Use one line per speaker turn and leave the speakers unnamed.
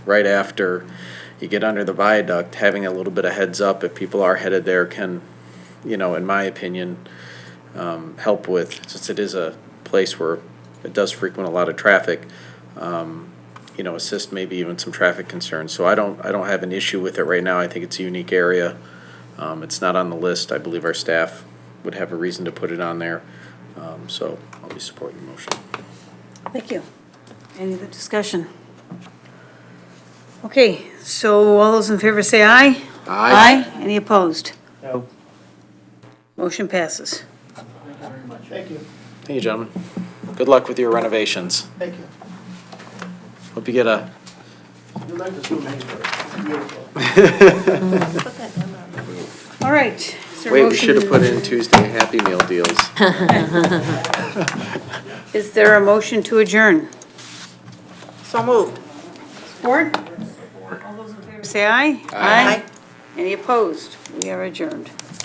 right after you get under the viaduct, having a little bit of heads up if people are headed there can, you know, in my opinion, um, help with, since it is a place where it does frequent a lot of traffic, um, you know, assist maybe even some traffic concerns. So I don't, I don't have an issue with it right now. I think it's a unique area. Um, it's not on the list. I believe our staff would have a reason to put it on there. Um, so I'll be supporting the motion.
Thank you. Any other discussion? Okay, so all those in favor say aye.
Aye.
Any opposed?
No.
Motion passes.
Thank you.
Thank you, gentlemen. Good luck with your renovations.
Thank you.
Hope you get a
You like the Zoom anyway. Beautiful.
All right. is there a
Wait, we
motion-
should have put in Tuesday Happy Meal deals.
Is there a motion to adjourn?
So moved.
Support? All those in favor say aye. Aye. Any opposed? We are adjourned.